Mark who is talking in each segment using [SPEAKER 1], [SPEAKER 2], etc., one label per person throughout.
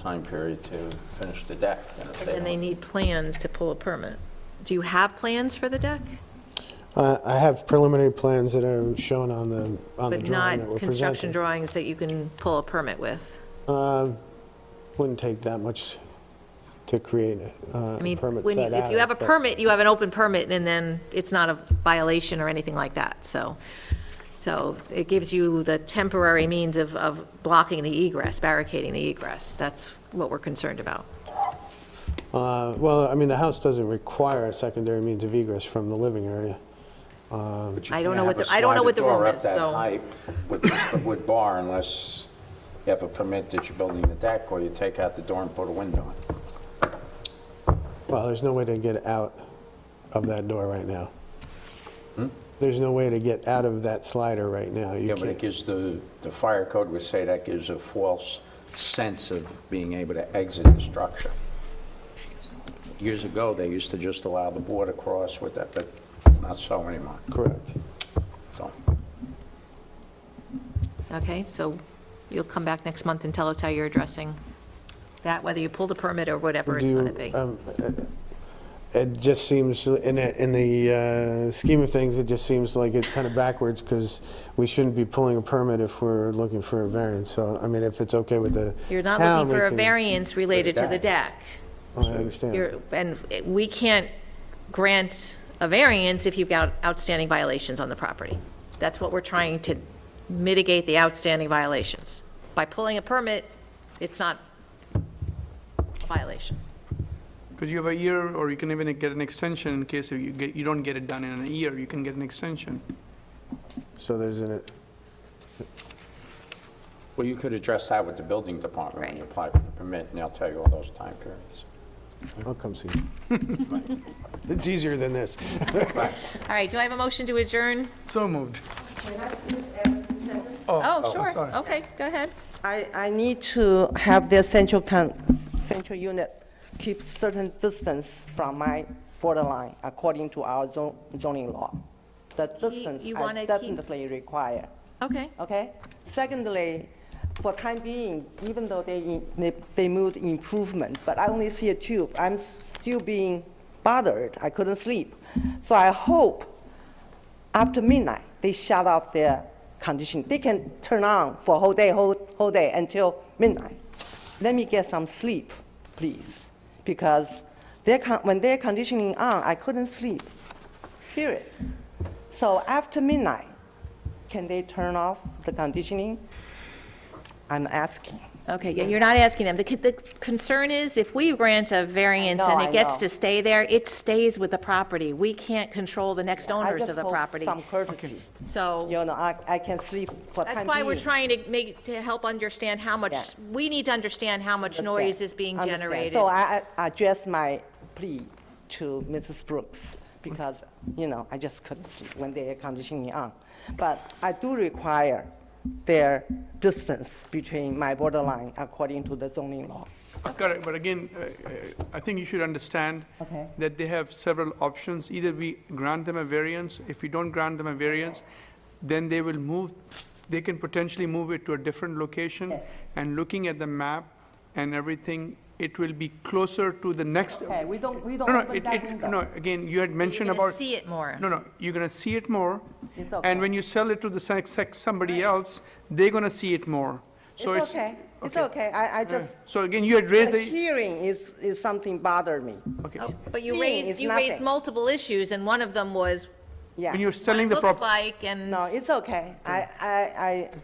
[SPEAKER 1] time period to finish the deck. And if
[SPEAKER 2] And they
[SPEAKER 1] don't-
[SPEAKER 2] need plans to pull a permit. Do you have plans for the deck?
[SPEAKER 3] Uh, I have preliminary plans that are shown on the, on the
[SPEAKER 2] But
[SPEAKER 3] drawing that
[SPEAKER 2] not
[SPEAKER 3] were
[SPEAKER 2] construction
[SPEAKER 3] presented.
[SPEAKER 2] drawings that you can pull a permit with?
[SPEAKER 3] Uh, Wouldn't take that much to create uh,
[SPEAKER 2] I
[SPEAKER 3] a
[SPEAKER 2] mean,
[SPEAKER 3] permit
[SPEAKER 2] when you-
[SPEAKER 3] set out.
[SPEAKER 2] if you have a
[SPEAKER 3] but-
[SPEAKER 2] permit, you have an open permit, and then it's not a violation or anything like that, so. So it gives you the temporary means of, of blocking the egress, barricading the egress. That's what we're concerned about.
[SPEAKER 3] Uh, Well, I mean, the house doesn't require a secondary means of egress from the living area.
[SPEAKER 1] But you
[SPEAKER 2] I don't
[SPEAKER 1] can't
[SPEAKER 2] know what
[SPEAKER 1] have
[SPEAKER 2] the- I don't know
[SPEAKER 1] a
[SPEAKER 2] what the
[SPEAKER 1] sliding
[SPEAKER 2] room
[SPEAKER 1] door up
[SPEAKER 2] is,
[SPEAKER 1] that
[SPEAKER 2] so-
[SPEAKER 1] height With the wood bar unless you have a permit that you're building the deck or you take out the door and put a window in.
[SPEAKER 3] Well, there's no way to get out of that door right now. There's no way to get out of that slider right now. You
[SPEAKER 1] Hmm? Yeah, but it
[SPEAKER 3] can't.
[SPEAKER 1] gives the, the fire code would say that gives a false sense of being able to exit the structure. Years ago, they used to just allow the board across with that, but not so anymore,
[SPEAKER 3] Correct.
[SPEAKER 1] so.
[SPEAKER 2] Okay, so you'll come back next month and tell us how you're addressing that, whether you pull the permit or whatever it's
[SPEAKER 3] Do-
[SPEAKER 2] going to be.
[SPEAKER 3] um, uh, It just seems, in, a- in the uh, scheme of things, it just seems like it's kind of backwards because we shouldn't be pulling a permit if we're looking for a variance. So, I mean, if it's okay with the
[SPEAKER 2] You're not
[SPEAKER 3] town,
[SPEAKER 2] looking
[SPEAKER 3] we
[SPEAKER 2] for a
[SPEAKER 3] can-
[SPEAKER 2] variance related to the deck.
[SPEAKER 3] Oh, I understand.
[SPEAKER 2] You're, and we can't grant a variance if you've got outstanding violations on the property. That's what we're trying to mitigate the outstanding violations. By pulling a permit, it's not a violation.
[SPEAKER 4] Because you have a year, or you can even get an extension in case you get, you don't get it done in a year, you can get an extension.
[SPEAKER 3] So there's an,
[SPEAKER 1] Well, you could address that with the building department when you
[SPEAKER 2] Right.
[SPEAKER 1] apply for the permit, and they'll tell you all those time periods.
[SPEAKER 3] I'll come see you. It's easier than this.
[SPEAKER 2] All right, do I have a motion to adjourn?
[SPEAKER 4] So moved.
[SPEAKER 2] Oh, sure,
[SPEAKER 4] sorry.
[SPEAKER 2] okay, go ahead.
[SPEAKER 5] I, I need to have the central con, central unit keep certain distance from my borderline according to our zon- zoning law. The distance
[SPEAKER 2] you wanna
[SPEAKER 5] I
[SPEAKER 2] keep-
[SPEAKER 5] definitely require,
[SPEAKER 2] Okay,
[SPEAKER 5] okay? Secondly, for time being, even though they, in- they, they moved improvement, but I only see a tube, I'm still being bothered, I couldn't sleep. So I hope after midnight, they shut off their conditioning. They can turn on for whole day, whole, whole day until midnight. Let me get some sleep, please, because their con- when their conditioning on, I couldn't sleep. Period. So after midnight, can they turn off the conditioning? I'm asking.
[SPEAKER 2] okay, yeah, you're not asking them. The, c- the concern is if we grant a variance and
[SPEAKER 5] know,
[SPEAKER 2] it
[SPEAKER 5] I
[SPEAKER 2] gets
[SPEAKER 5] know.
[SPEAKER 2] to stay there, it stays with the property. We can't control the next
[SPEAKER 5] I
[SPEAKER 2] owners
[SPEAKER 5] just
[SPEAKER 2] of the
[SPEAKER 5] hope
[SPEAKER 2] property,
[SPEAKER 5] Some courtesy.
[SPEAKER 2] so.
[SPEAKER 5] You know, I, I can sleep for time
[SPEAKER 2] That's why we're
[SPEAKER 5] being.
[SPEAKER 2] trying to make, to help understand how much,
[SPEAKER 5] Yeah.
[SPEAKER 2] we need to understand how much
[SPEAKER 5] Understand.
[SPEAKER 2] noise is being
[SPEAKER 5] Understand.
[SPEAKER 2] generated.
[SPEAKER 5] So I I address my plea to Mrs. Brooks because, you know, I just couldn't sleep when the air conditioning on. But I do require their distance between my borderline according to the zoning law.
[SPEAKER 4] Correct, but again, uh, uh, I think you should understand
[SPEAKER 5] Okay.
[SPEAKER 4] that they have several options. Either we grant them a variance, if we don't grant them a variance, then they will move, they can potentially move it to a different location.
[SPEAKER 5] Yes.
[SPEAKER 4] And looking at the map and everything, it will be closer to the next.
[SPEAKER 5] Okay, we don't, we
[SPEAKER 4] No,
[SPEAKER 5] don't
[SPEAKER 4] no,
[SPEAKER 5] open
[SPEAKER 4] it,
[SPEAKER 5] that
[SPEAKER 4] it,
[SPEAKER 5] window.
[SPEAKER 4] no, again, you had mentioned
[SPEAKER 2] gonna
[SPEAKER 4] about.
[SPEAKER 2] see it more. Oh,
[SPEAKER 4] No, no, you're gonna see it more.
[SPEAKER 5] It's okay.
[SPEAKER 4] And when you sell it to the sex, sex, somebody else, they're gonna see it more. So
[SPEAKER 5] It's okay, it's okay, I, I just,
[SPEAKER 4] So again, you had raised
[SPEAKER 5] the
[SPEAKER 4] the,
[SPEAKER 5] hearing is, is something bothered me,
[SPEAKER 4] okay.
[SPEAKER 2] But you
[SPEAKER 5] Seeing
[SPEAKER 2] raised,
[SPEAKER 5] is
[SPEAKER 2] you raised
[SPEAKER 5] nothing.
[SPEAKER 2] multiple issues, and one of them was
[SPEAKER 5] yeah.
[SPEAKER 4] When you're
[SPEAKER 2] what
[SPEAKER 4] selling
[SPEAKER 2] it
[SPEAKER 4] the
[SPEAKER 2] looks
[SPEAKER 4] property,
[SPEAKER 2] like, and,
[SPEAKER 5] No, it's okay. I, I,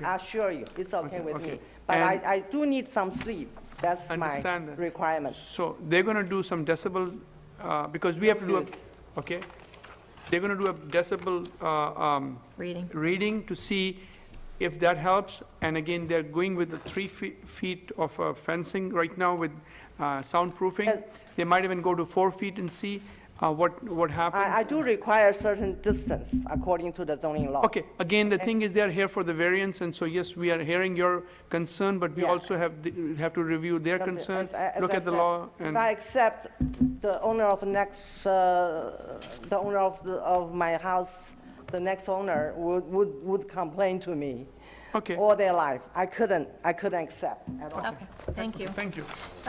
[SPEAKER 5] I assure you, it's okay with
[SPEAKER 4] okay.
[SPEAKER 5] me. But I,
[SPEAKER 4] And-
[SPEAKER 5] I do need some sleep. That's my
[SPEAKER 4] Understand that.
[SPEAKER 5] requirement.
[SPEAKER 4] so they're gonna do some decibel, uh, because we have to do a, okay? They're gonna do a decibel, uh, um,
[SPEAKER 2] reading.
[SPEAKER 4] reading to see if that helps. And again, they're going with the three fe- feet of uh, fencing right now with uh, soundproofing.
[SPEAKER 5] Yes.
[SPEAKER 4] They might even go to four feet and see uh, what, what happens.
[SPEAKER 5] I, I do require certain distance according to the zoning law.
[SPEAKER 4] Okay, again, the thing is they are here for the variance, and so yes, we are hearing your concern, but we
[SPEAKER 5] Yeah.
[SPEAKER 4] also have, the- have to review their
[SPEAKER 5] As-
[SPEAKER 4] concern,
[SPEAKER 5] as I- as
[SPEAKER 4] look
[SPEAKER 5] I
[SPEAKER 4] at the
[SPEAKER 5] said,
[SPEAKER 4] law,
[SPEAKER 5] If I
[SPEAKER 4] and,
[SPEAKER 5] accept the owner of next, uh, the owner of, the- of my house, the next owner would, would, would complain to me
[SPEAKER 4] Okay.
[SPEAKER 5] all their life. I couldn't, I couldn't accept at all.
[SPEAKER 2] Okay, thank you.
[SPEAKER 4] Thank you.